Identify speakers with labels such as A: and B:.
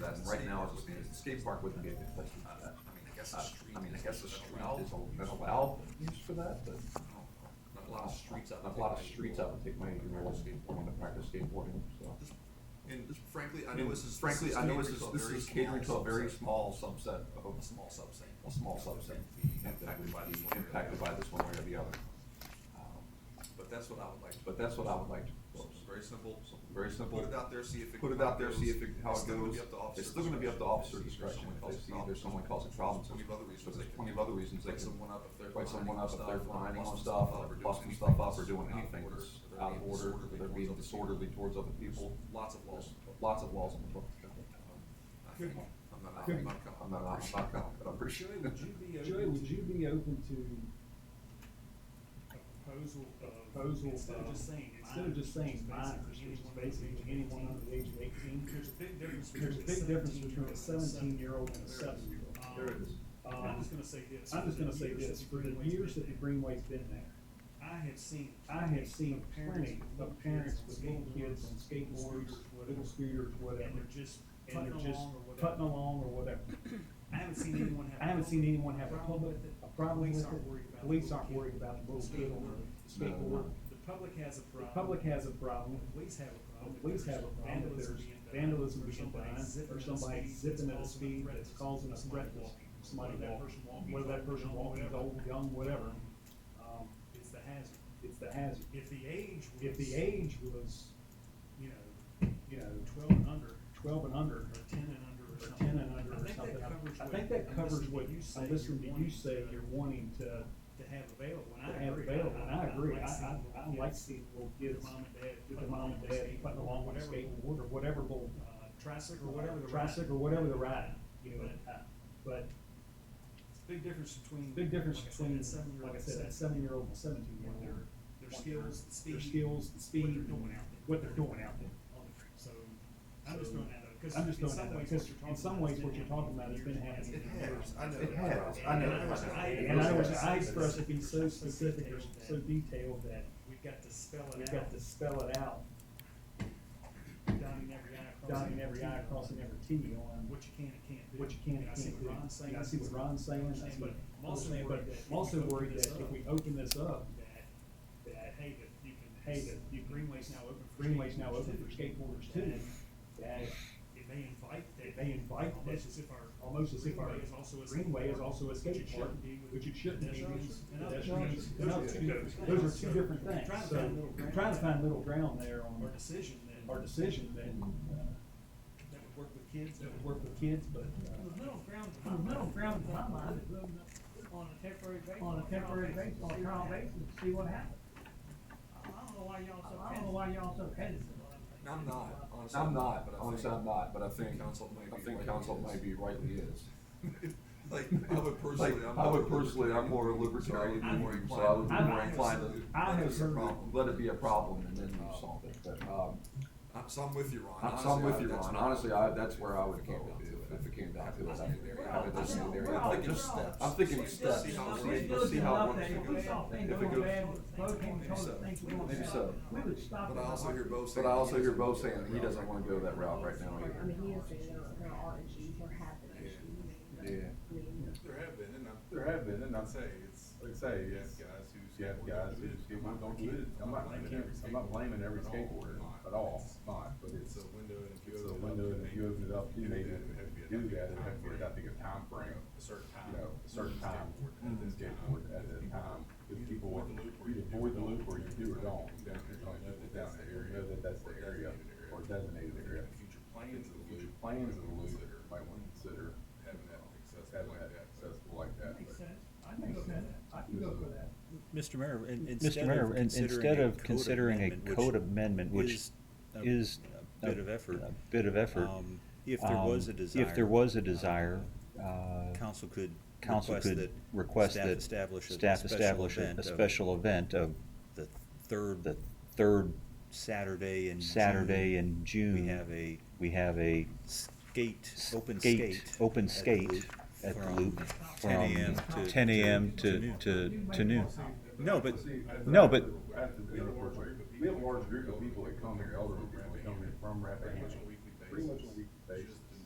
A: that, right now, it's a skate park wouldn't be a good place to do that.
B: I mean, I guess
A: Uh,
B: a street.
A: I mean, I guess the
B: is
A: street
B: allowed.
A: is a- is allowed use for that, but.
B: I don't know. Not a lot of streets out
A: Not A
B: there.
A: lot of streets I would take my, you know, skateboarding, to practice skateboarding, so.
B: And frankly, I
A: And
B: know this is.
A: Frankly,
B: this
A: I know this is,
B: catering a
A: this
B: very
A: is catering to a
B: small
A: very
B: subset.
A: small subset of,
B: A small subset.
A: a small subset.
B: That would
A: Impacted
B: be
A: by this,
B: one way or the
A: impacted by
B: other.
A: this one way or the other. Um,
B: But that's what I would like. to
A: But that's what I would like to
B: So
A: propose.
B: it's Very simple.
A: Very simple.
B: Put it out there, see if it.
A: Put it out there, see if it, how
B: It's
A: it
B: still gonna
A: goes.
B: be up to officer
A: It's still gonna be up to officer discretion.
B: discretion.
A: If they see there's someone causing problems,
B: Twenty
A: so
B: other reasons.
A: there's plenty of other reasons they
B: Write
A: can
B: someone up if they're.
A: write someone up if they're
B: finding
A: finding on stuff, or busting stuff up, or doing anything that's out of order, or they're being disorderly towards other people.
B: Lots of laws.
A: There's Lots of laws in the book.
B: I think, I'm not,
C: Good.
B: I'm not.
A: I'm not, I'm not, gonna- but I'm pretty sure.
C: Joey, would you be open? Joey, would you be open to
D: a proposal of.
C: proposal of?
D: Instead of just saying.
C: Instead of just saying minors, which is basically anyone under the age of eighteen.
D: There's a big difference.
C: There's a big difference between a seventeen-year-old and a seven-year-old.
A: There it is.
D: And Um, I'm just gonna say this.
C: I'm just gonna
D: for the
C: say
D: years
C: this,
D: that
C: for the
D: Greenway's
C: years
D: been
C: that the
D: there,
C: Greenway's been there,
D: I have seen.
C: I have seen
D: of
C: plenty of parents with little kids on
D: skateboards,
C: skateboards, little
D: whatever,
C: scooters, whatever.
D: And they're just
C: And
D: putting
C: they're just
D: along or
C: putting
D: whatever.
C: along or whatever.
D: I haven't seen anyone have.
C: I haven't seen anyone have a public, a problem with
D: Police
C: it.
D: aren't worried about.
C: Police
D: the
C: aren't
D: little
C: worried
D: kid.
C: about the little kid on the
A: No, no.
C: skateboard.
D: The public has a
C: The
D: problem.
C: public has a problem,
D: The Police have a problem.
C: the police have a problem if there's vandalism being done, or somebody zipping at a speed that's causing a threat to somebody walking, whether that person walking is old, young, whatever. Um,
D: It's the hazard.
C: it's the hazard.
D: If the age was.
C: If the age was,
D: You know,
C: you know,
D: twelve and under,
C: twelve and under,
D: or ten and under, or
C: or
D: something.
C: ten and under or something, I think that covers what, I listen to you say you're wanting to,
D: To have available, and
C: to
D: I
C: have
D: agree.
C: available, and I agree, I, I, I like
D: seeing
C: seeing little
D: little
C: kids
D: kids, mom and dad,
C: with their mom and dad, putting along with a skateboard or whatever little
D: Uh, tricycle, or whatever the.
C: tricycle,
D: ride.
C: whatever the ride, you know,
D: But-
C: uh, but
D: Big difference between.
C: big difference
D: like I said,
C: between,
D: that seven-year-old
C: like I said, that
D: and
C: seven-year-old and seventeen-year-old.
D: Their, their skills, the speed.
C: Their skills, the speed.
D: What they're doing out there.
C: What they're doing out there.
D: on the trail. So, I'm just throwing that out, because
C: I'm just
D: in
C: throwing that
D: some
C: out,
D: ways,
C: because
D: what you're
C: in
D: talking
C: some
D: about
C: ways,
D: has
C: what
D: been
C: you're talking about
D: happening for
C: has been
D: years.
C: happening.
B: It has, I
A: It has, I
B: know.
D: And
A: know.
D: I was- I-
C: And I wish, I
D: was-
C: express it be so
D: was
C: specific or
D: detailed
C: so
D: that
C: detailed that
D: We've got to spell
C: we've
D: it out,
C: got to spell it out,
D: dotting every i,
C: dotting
D: crossing
C: every I,
D: t.
C: crossing every T on
D: What you can and can't do.
C: what you can
D: And
C: and can't do.
D: I see what Ron's saying.
C: And I see what Ron's saying, I see
D: But
C: what
D: I'm also
C: Paul's saying, but
D: worried that if
C: I'm also
D: we open
C: worried
D: this
C: that if
D: up,
C: we open this up,
D: That, that, hey, that you can.
C: Hey, that you can-
D: Greenway's now open for.
C: Greenway's now
D: skateboarders
C: open
D: too.
C: for skateboarders too, that
D: It may invite that.
C: It may invite that-
D: Almost as if our.
C: almost as if our
D: Greenway is also a
C: Greenway is
D: skateboard,
C: also a
D: which it
C: skate park,
D: shouldn't be with
C: which it shouldn't be.
D: pedestrians and others.
C: Pedestrians and
D: Those are
C: others.
D: two different
C: Those are
D: things.
C: two
D: So
C: different
D: we're
C: things,
D: trying to
C: so,
D: find middle ground.
C: trying to find middle ground there
D: Our
C: on uh,
D: decision that.
C: our decision that, uh,
D: That would work with kids.
C: that would work with kids, but,
D: The
C: uh,
D: middle ground.
E: On middle ground, in my mind,
D: On a temporary basis.
E: on a temporary basis, on a trial basis, see what happens.
D: I don't know why y'all so.
E: I don't know why y'all so hesitant.
B: I'm not, honestly.
A: I'm not,
B: but I
A: honestly,
B: think-
A: I'm not, but I think,
B: Council might
A: I
B: be
A: think
B: rightly
A: council
B: is.
A: might be rightly is.
B: Like, I would personally, I'm.
A: I
B: more
A: would personally, I'm more a libertarian,
B: I'm
A: than
B: more
A: you, so I
B: inclined.
A: would be
C: I'm-
A: more
C: I-
A: inclined to.
C: I
A: let
C: have
A: it be a
C: heard-
A: problem- Let it be a problem and then you solve it, but, um,
B: I'm, so I'm with you, Ron.
A: I'm, so I'm
B: Honestly,
A: with
B: I-
A: you,
B: that's
A: Ron,
B: not-
A: honestly, I, that's where I would
B: If it
A: go,
B: came down to it.
A: if, if it came down to it, I
B: Have a
A: would,
B: disciplinary-
A: I would
E: We're
A: listen to their, I'm
E: all- we're all-
A: thinking
E: we're all-
A: steps, I'm thinking steps,
B: see how
A: let's,
B: it goes.
A: let's see how it
E: If
A: works.
E: we
B: goes.
A: If
E: stop thinking
A: it
E: about
A: goes,
E: bad, both of them told us things we don't
A: Maybe
E: stop.
A: so.
E: We would stop.
B: But I also hear Bo saying.
A: but I also hear
B: he
A: Bo
B: doesn't
A: saying
B: go
A: he
B: that
A: doesn't
B: route.
A: wanna go that route right now
F: I
A: either.
F: mean, he is saying there are- there are issues, there have been issues.
A: Yeah.
F: I mean,
G: There have been, and I,
H: There have been, and I say,
G: say, it's,
H: like I say,
G: you have
H: it's,
G: guys who.
H: you have
G: skateboard
H: guys who
G: do it.
H: skate, I'm not,
G: blaming
H: I'm not blaming,
G: every
H: I'm not blaming every
G: skateboarder at all.
H: skateboarder
G: Not.
H: at all, not, but
G: It's
H: it's,
G: a window and if you
H: it's
G: open
H: a
G: it up.
H: window,
G: to
H: and
G: make-
H: if you open it up, you
G: do
H: need
G: that, it
H: to
G: would have to be a
H: do
G: different
H: that, it
G: time
H: has to be,
G: frame.
H: I think, a time frame.
G: A certain time.
H: You know, a certain
G: Skateboard
H: time,
G: at
H: and then
G: this time.
H: skateboard at that time, because people,
G: avoid the loop or
H: you
G: you do
H: avoid
G: it
H: the
G: all.
H: loop or you do it all,
G: You
H: down
G: don't
H: here,
G: know
H: you
G: that
H: put down
G: that's
H: there,
G: the
H: you
G: area
H: know that that's the
G: or
H: area,
G: designated area.
H: or designated area.
G: Future
H: Plans
G: plans of
H: of the
G: the loop.
H: loop, plans of the loop,
G: Consider
H: might want to consider
G: Having that accessible like
H: having that
G: that.
H: accessible like that,
E: That
H: but.
E: makes sense. I can go for that. I can go for that.
I: Mr. Mayor, in-
J: Mr.
I: instead
J: Mayor,
I: of
J: in- instead
I: considering a
J: of
I: code
J: considering a
I: amendment, which
J: code amendment, which
I: a
J: is.
I: bit of effort,
J: A bit of effort.
I: um, If there
J: um,
I: was a desire.
J: If there was a
I: uh,
J: desire, uh,
I: Council could
J: council
I: request
J: could
I: that.
J: request
I: staff
J: that.
I: establish a
J: staff
I: special
J: establish a-
I: event
J: A
I: of
J: special event of
I: The third.
J: the third
I: Saturday in
J: Saturday
I: June,
J: in June.
I: We have a
J: We have a
I: skate, open
J: skate-
I: skate.
J: Open
I: at the
J: skate
I: loop
J: at the
I: from
J: loop.
I: 10
J: from
I: a.m. to-
J: 10 a.m.
I: to-
J: to,
I: to
J: to, to noon.
I: No, but-
J: No, but-
H: I have to- We have a large group of people that come here, elderly people that come here from
G: Pretty
H: Rappahannock.
G: much on a weekly
H: Pretty much
G: basis.
H: on